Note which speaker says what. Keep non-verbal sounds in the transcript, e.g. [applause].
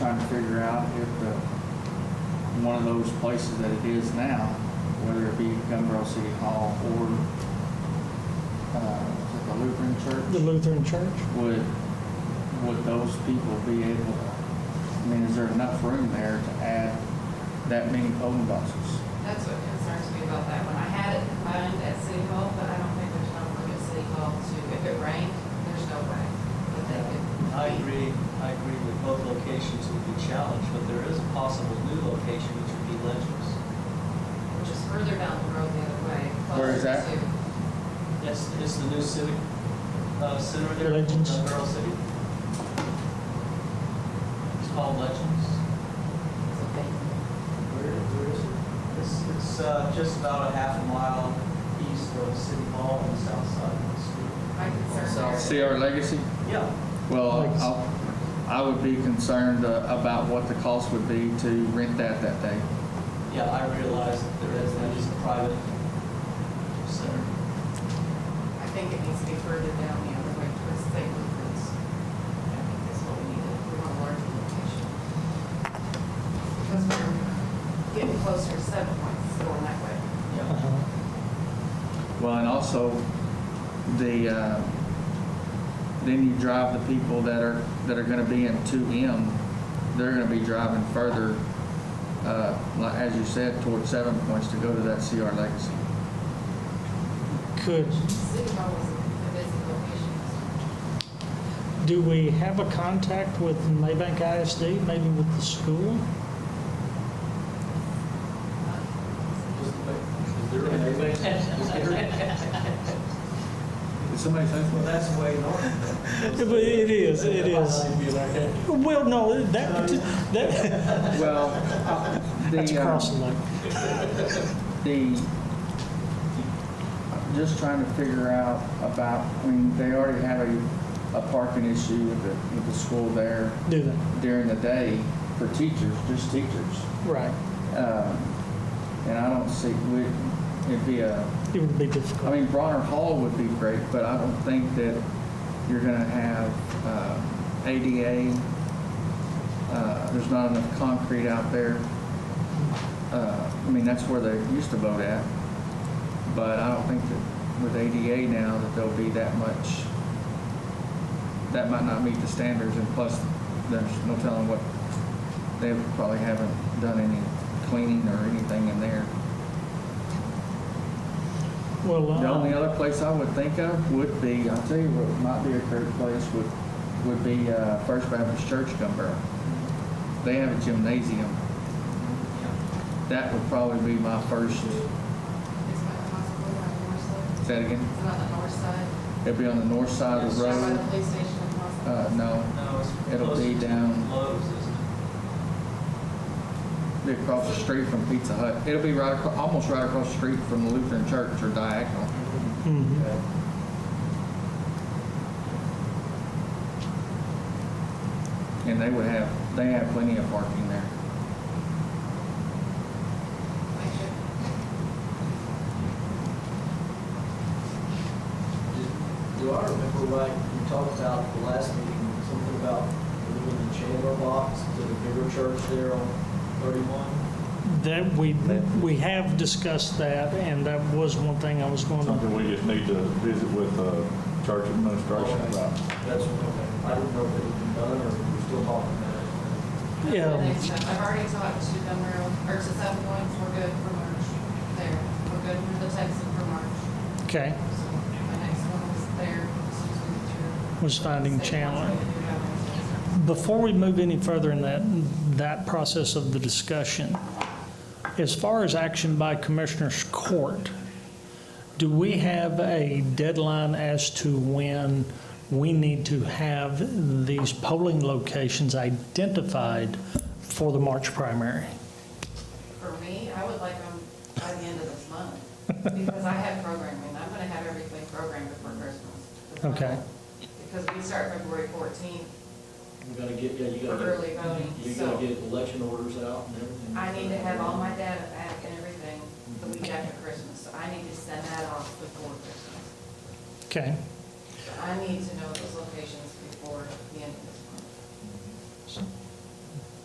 Speaker 1: in one of those places that it is now, whether it be Gumbel City Hall or, uh, is it the Lutheran
Speaker 2: The
Speaker 1: Church?
Speaker 2: Lutheran Church?
Speaker 1: Would, would those people be able, I mean, is there enough room there to add that many voting boxes?
Speaker 3: That's what concerns me about that one. I had it combined at City Hall, but I don't think there's enough room at City Hall to, if it rained, there's no way that they could.
Speaker 4: I agree, I agree with both locations would be challenged, but there is a possible new location, which would be Ledger's.
Speaker 3: Which is further down the road the other way.
Speaker 1: Where is
Speaker 3: closer
Speaker 1: that?
Speaker 3: to-
Speaker 4: It's, it's the new civic, uh, center there, in
Speaker 2: Legends.
Speaker 4: Earl City. It's called Legends.
Speaker 3: It's okay.
Speaker 4: Where, where is it? It's, it's, uh, just about a half a mile east of City Hall on the south side of the street.
Speaker 3: My concern there. is-
Speaker 1: See our legacy?
Speaker 4: Yeah,
Speaker 1: Well,
Speaker 2: Legacy.
Speaker 1: I'll- I would be concerned uh, about what the cost would be to rent that that day.
Speaker 4: yeah, I realize that there is, that is a private center.
Speaker 3: I think it needs to be further down the other way towards St. Luke's. I think that's what we need, we want a larger location. Because we're getting closer to seven points going that way.
Speaker 4: Yeah.
Speaker 2: Uh-huh.
Speaker 1: Well, and also the, uh, then you drive the people that are, that are gonna be in two M, they're gonna be driving further, uh, like, as you said, toward seven points to go to that CR Legacy.
Speaker 2: Could,
Speaker 3: City Hall is a busy location.
Speaker 2: do we have a contact with Maybank ISD, maybe with the school?
Speaker 1: Did somebody say
Speaker 4: Well,
Speaker 1: something?
Speaker 4: that's way north.
Speaker 2: [laughs] It it is, it is. Well, no, that,
Speaker 1: Uh,
Speaker 2: parti- that,
Speaker 1: Well, the,
Speaker 2: [laughs] that's
Speaker 1: uh,
Speaker 2: across the lake.
Speaker 1: the, just trying to figure out about, I mean, they already have a, a parking issue with the, with the school there
Speaker 2: Do that,
Speaker 1: during the day for teachers, just teachers.
Speaker 2: right.
Speaker 1: Um, And I don't see, we- it'd be a,
Speaker 2: It would be
Speaker 1: I
Speaker 2: difficult.
Speaker 1: mean, Bronner Hall would be great, but I don't think that you're gonna have uh, ADA. uh, There's not enough concrete out there. Uh, I mean, that's where they used to vote at. But I don't think that with ADA now that there'll be that much, that might not meet the standards. And plus, there's no telling what, they probably haven't done any cleaning or anything in there.
Speaker 2: Well,
Speaker 1: The only
Speaker 2: uh,
Speaker 1: other place I would think of would be, I'll tell you what might be a great place would, would be uh, First Baptist Church, Gumbel. They have a gymnasium. That would probably be my first,
Speaker 3: It's not possible on the north side.
Speaker 1: say that again,
Speaker 3: It's not on the north side.
Speaker 1: it'd be on the north side of the
Speaker 3: Down By the
Speaker 1: road.
Speaker 3: police station and hospital.
Speaker 1: Uh, no,
Speaker 4: No, it's
Speaker 1: It'll be
Speaker 4: closer to
Speaker 1: down-
Speaker 4: Lowe's, isn't it?
Speaker 1: it'd be across the street from Pizza Hut. It'll be right, acro- almost right across the street from the Lutheran Church or Diagonal.
Speaker 2: mhm.
Speaker 1: And they would have, they have plenty of parking there.
Speaker 3: Like it.
Speaker 4: Do I remember right, we talked about the last meeting, something about moving the Chandler box to the bigger church there on 31?
Speaker 2: That, we, we have discussed that, and that was one thing I was going to
Speaker 5: Something we just need to visit with uh, church administration about.
Speaker 4: That's, okay. I didn't know if it had been done or we we're still talking about it.
Speaker 2: Yeah.
Speaker 3: I've already talked to Dunrail, or to Seven Points, we're good for March there. We're good for the Texan for March.
Speaker 2: Okay,
Speaker 3: So my next one was there. so it's gonna be through-
Speaker 2: Was finding
Speaker 3: State
Speaker 2: Chandler.
Speaker 3: wants me to do that one, so-
Speaker 2: before we move any further in that, that process of the discussion, as far as action by Commissioners Court, do we have a deadline as to when we need to have these polling locations identified for the March primary?
Speaker 3: For me, I would like them by the end of this month, because I have programming, I'm gonna have everything programmed before Christmas. That's my
Speaker 2: Okay.
Speaker 3: goal. Because we start February fourteenth,
Speaker 6: You gotta get, yeah, you gotta.
Speaker 3: Early voting,
Speaker 6: You
Speaker 3: so-
Speaker 6: gotta get election orders out and everything.
Speaker 3: I need to have all my data back and everything the week after Christmas, so I need to send that off before Christmas.
Speaker 2: Okay,
Speaker 3: So I need to